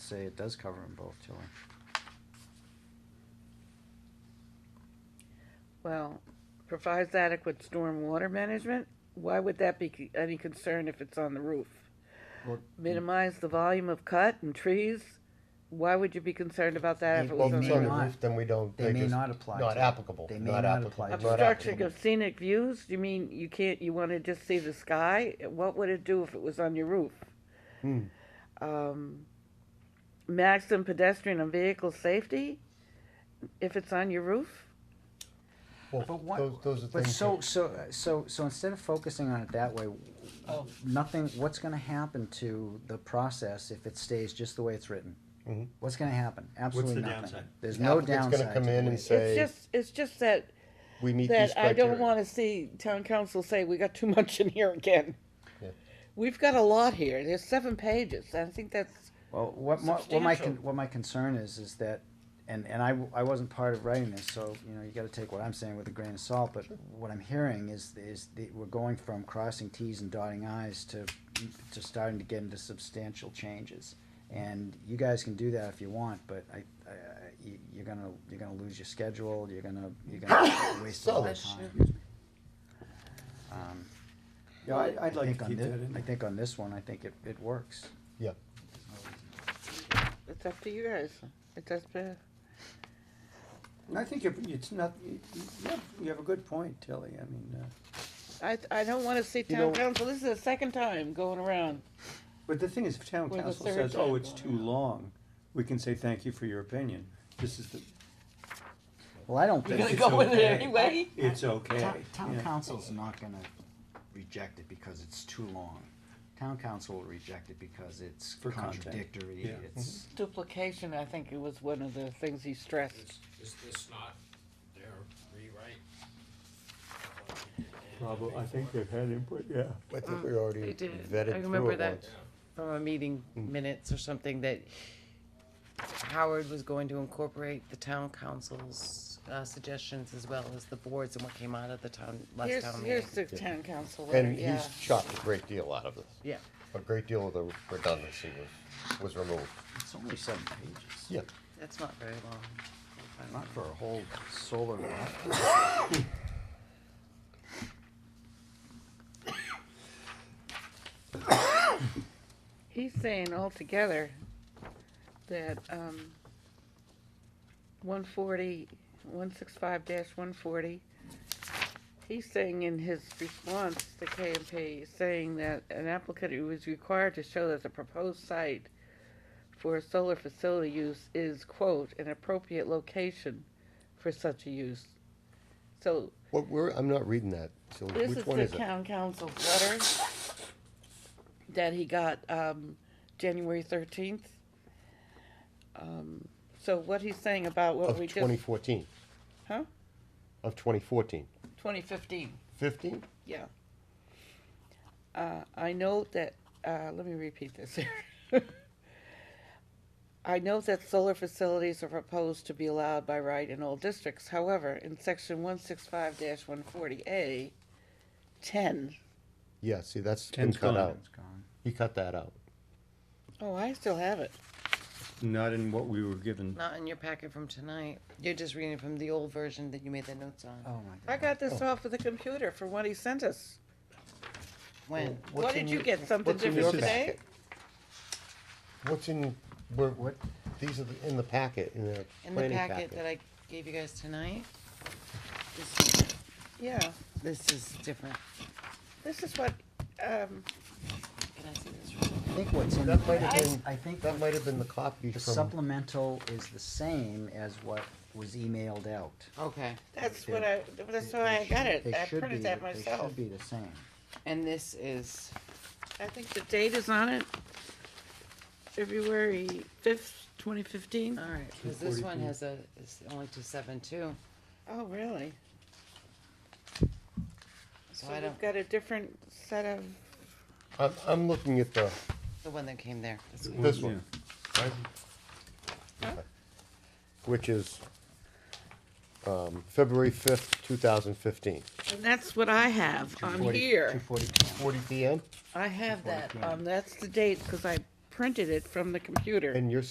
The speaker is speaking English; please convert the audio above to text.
say it does cover them both, Tilly. Well, provides adequate storm water management, why would that be c- any concern if it's on the roof? Well, Minimize the volume of cut and trees, why would you be concerned about that if it Well, was if on it's the on the roof? not- roof, then we don't. They they're may just not apply Not to it. applicable. They may not apply to it. applicable, not Obstruction of applicable. scenic views, you mean, you can't, you wanna just see the sky, what would it do if it was on your roof? Hmm. Um, maximum pedestrian and vehicle safety, if it's on your roof? Well, But what- Those, those are things. But so, that- so, so, so instead of focusing on it that way, nothing, what's gonna happen to the process if it stays just the way it's written? Mhm. What's gonna happen? Absolutely nothing. downside? There's no Applicant's gonna downside. come to the in way and it- say- It's just, it's just that We meet these that I don't criteria. wanna see town council say, we got too much in here again. Yeah. We've got a lot here, there's seven pages, I think that's, Well, what my, what my, con- Substantial. what my concern is, is that, and, and I, w- I wasn't part of writing this, so, you know, you gotta take what I'm saying with a grain of salt, but what I'm hearing is, is that we're going from crossing Ts and dotting Is to, to starting to get into substantial changes. And you guys can do that if you want, but I, I, I- you, you're gonna, you're gonna lose your schedule, you're gonna, you're gonna waste a lot of So- time. Um, Yeah, I- I'd like think to on keep thi- that in I there. think on this one, I think it, it works. Yeah, it's up to you guys, uh, it's up to, I think you're- it's not, you you have, you have a good point, Tilly, I mean, uh, I, I don't wanna see know- town council, this is the second time going around. but the thing is, if town We're the council third says, oh, time it's going too long, we can say, thank you for your opinion, this is the, Well, I don't You're think. gonna it's go in there okay. anyway? it's okay. Town, town Yeah. council's not gonna reject it because it's too long. Town council will reject it because it's For content. contradictory, Yeah. it's, Duplication, I think it was one of the things he stressed. Is, is this not their rewrite? Probably, I think they've had input, yeah. I think we already they did. I vetted through Hmm. remember it that. once. from a meeting minutes or something that Howard was going to incorporate the town council's uh, suggestions as well as the boards and what came out of the town, last Here's, town meeting. here's the town council letter, And yeah. he's chopped a great deal out of this. Yeah, A great deal of the redundancy was, was removed. Mm-hmm. it's only seven pages. Yeah. that's not very long. Not for a whole solar. Oh. array. He's saying altogether that, um, one forty, one six five dash one forty, he's saying in his response to KMP, saying that an applicant who is required to show that the proposed site for a solar facility use is, quote, an appropriate location for such a use. So What, we're, I'm not reading that, so this is which one the is it? town council's letter that he got, um, January thirteenth. Um, so what he's saying about what Of we twenty just, fourteen, huh? of twenty fourteen. Twenty fifteen, Fifteen? yeah. Uh, I note that, uh, let me repeat this I know that solar facilities are proposed to be allowed by right in all districts. However, in section one six five one forty A, ten, Yeah, see, that's been Ten's cut gone. out. It's gone. He cut that out. oh, I still have it. Not in what we were given. Not in your packet from tonight. You're just reading from the old version that you made the notes on. Oh, my I God. got this off of the computer for what he sent us. When? What's What in did you your- get, something what's in different your today? packet? What's in, where, What? these are the- in the packet, in the In the planning packet that packet. I gave you guys tonight? This- Yeah, This is different. this is what, um, Can I see this? I real think what's in, That might have I been- I think That might have been the copy the from, supplemental is the same as what was emailed out. quick? Okay, that's what I, that's why I got it, They I should printed be- that They myself. should be the same. and this is, I think the date is on it, February fifth, twenty fifteen. Uh, all right, because this one has a, it's only two seven two, Oh, really? so So I don't. we've got a different set of, I'm, I'm looking at the, The one that came there. That's what- this one. right? Okay. Which is, um, February fifth, two thousand fifteen. and that's what I have on 240 here. Forty PM, I have that, um, that's the date, cause I printed it from the computer. and you're